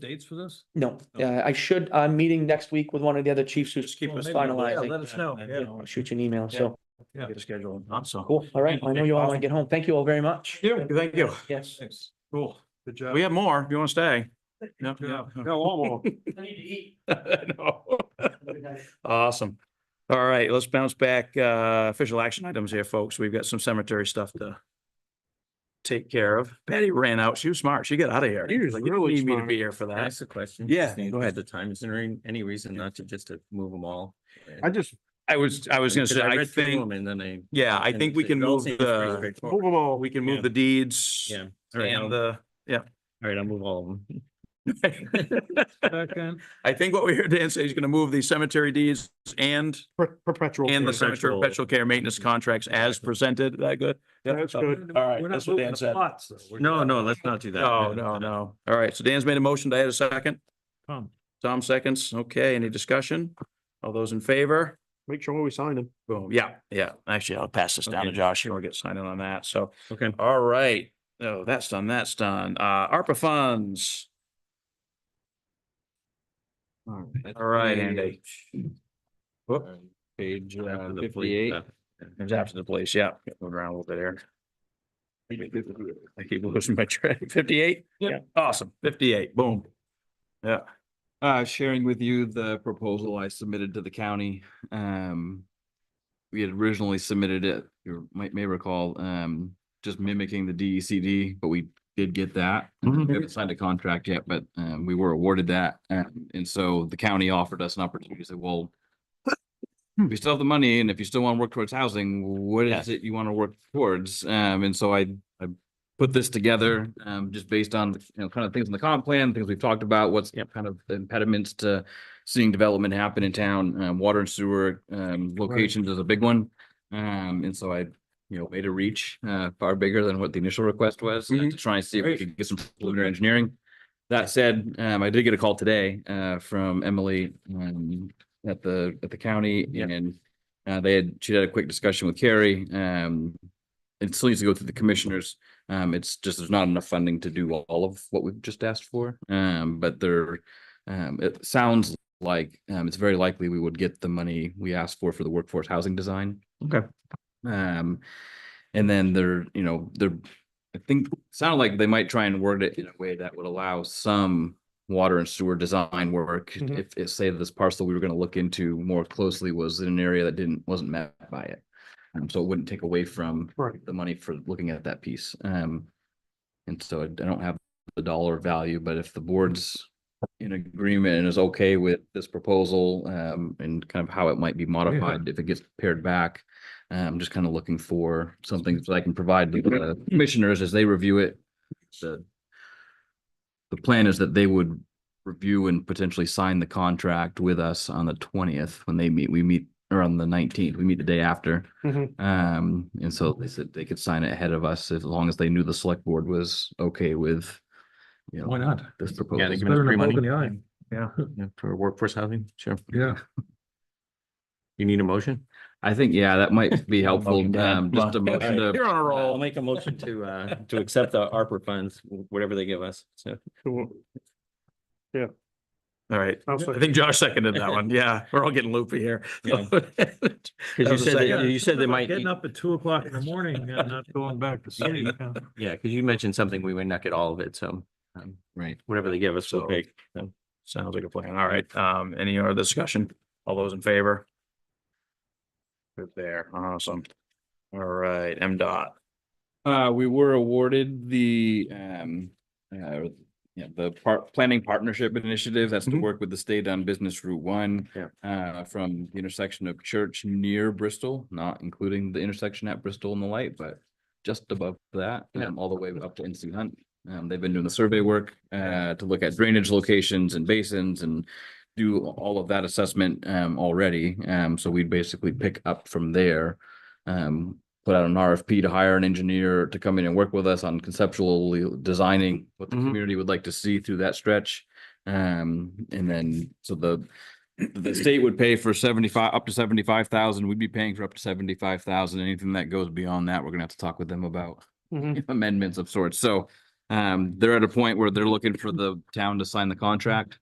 dates for this? No, No. uh, I should, I'm meeting next week with one of the other chiefs who's Well, who's maybe we'll- yeah, finalizing. Let us know, Yeah, yeah. I'll shoot you an email, Yeah. so, Yeah, get a schedule. so. cool, all right, I know you all want to Awesome. get home, thank you all very much. Yeah, Thank you. Yes, Thanks. Cool. Good job. Uh, We have more if you want to stay. No, Yeah. no, no. No. Awesome. All right, let's bounce back. Uh, official action items here, folks. We've got some cemetery stuff to take care of. Patty ran out. She was smart. She got out of here. She was Like, you don't really need me to smart. be here for Can I that. ask a question? Yeah, Just need- go ahead. The time, is there any- any reason not to just to move them all? I just I was, I was gonna Because say, I read through think, them And then I. yeah, I and think we it can all move seems pretty the, straightforward. we can Yeah. move the deeds Yeah. All right, and I'll- all the, right, I'll move all of them. Second. I think what we heard Dan say, he's gonna move the cemetery deeds and, per- perpetual. and the care. cemetery Perpetual. perpetual care maintenance contracts as presented. Is That good? Yeah. That's good. All right, We're not that's what moving Dan the said. plots, though. We're No, just- no, let's not do that. No, no, no. All right, so Dan's made a motion. Do I have a second? Tom. Tom seconds. Okay, any discussion? All those in favor? Make sure we sign them. Boom. Yeah, yeah. Actually, I'll pass this down to Okay. Josh. He'll get signed in on that. So, Okay. all right. Oh, that's done. That's done. Uh, ARPA funds. All right, Andy. Whoop. Page uh, 58. It was after the police. Yeah, moving around a little bit here. I keep losing my track. Fifty-eight? Yep. Awesome. Fifty-eight. Boom. Yeah. Uh, sharing with you the proposal I submitted to the county. Um, we had originally submitted it, you might, may recall, um, just mimicking the DECD, but we did get that. Um, We haven't signed a contract yet, but, um, we were awarded that. Um, and so the county offered us an opportunity to say, well, we still have the money and if you still want to work towards housing, what is it you want to work towards? Um, and so I, I put this together, um, just based on, you know, kind of things in the comp plan, things we've talked about, what's kind of the impediments to seeing development happen in town, um, water and sewer, um, locations is a big one. Um, and so I, you know, made a reach, uh, far bigger than what the initial request was, uh, to try and see if we Mm-hmm. Great. could get some preliminary engineering. That said, um, I did get a call today, uh, from Emily, um, at the, at the county Yep. and uh, they had, she had a quick discussion with Carrie, um, it still needs to go through the commissioners. Um, it's just, there's not enough funding to do all- all of what we've just asked for. Um, but there, um, it sounds like, um, it's very likely we would get the money we asked for for the workforce housing design. Okay. Um, and then they're, you know, they're, I think, sounded like they might try and word it in a way that would allow some water and sewer design work. Mhm. If, if say this parcel we were gonna look into more closely was in an area that didn't, wasn't met by it. Um, so it wouldn't take away from Right. the money for looking at that piece. Um, and so I I don't have the dollar value, but if the board's in agreement and is okay with this proposal, um, and kind of how it might be modified if it gets paired back. uh, I'm just kind of looking for something that I can provide to the commissioners as they review it. The the plan is that they would review and potentially sign the contract with us on the twentieth when they meet. We meet or on the nineteenth, we meet the day after. Mhm. Um, and so they said they could sign it ahead of us as long as they knew the select board was okay with, you Why know, not? this Yeah, proposal. they give Better us than free a poke in the money eye. Yeah, Yeah, for workforce housing, sure. yeah. You need a motion? I think, yeah, that might be helpful. Motion to- Um, just a Well, motion to You're on a I'll roll. make a motion to, uh, to accept the ARPA funds, whatever they give us, so. Cool. All right. I'll second. I think Josh seconded that one. Yeah, we're all getting loopy here. Yeah. That Cause you was a said, that- second. you said they About might, Getting you up at two o'clock in the morning and not going back to sleep. yeah. yeah, cause you mentioned something, we might not get all of it, so, um, Right. whatever they give us, So- we'll take. Sounds like a plan. All right. Um, any other discussion? All those in favor? Good there. Awesome. All right, M dot. Uh, we were awarded the, um, uh, yeah, the part, planning partnership initiative, that's to Mhm. work with the state on business route one. Mm-hmm. Yeah. Uh, from the intersection of Church near Bristol, not including the intersection at Bristol and the light, but just above that, Yeah. um, all the way up to NC Hunt. Um, they've been doing the survey work, uh, to look at drainage locations and basins and do all of that assessment, um, already. Um, so we'd basically pick up from there. Um, put out an RFP to hire an engineer to come in and work with us on conceptually designing what the Mhm. community would like to see through that stretch. Um, and then, so the, the state would pay for seventy-five, up to seventy-five thousand, we'd be paying for up to seventy-five thousand, anything that goes beyond that, we're gonna have to talk with them about Mhm. amendments of sorts, so Um, they're at a point where they're looking for the town to sign the contract.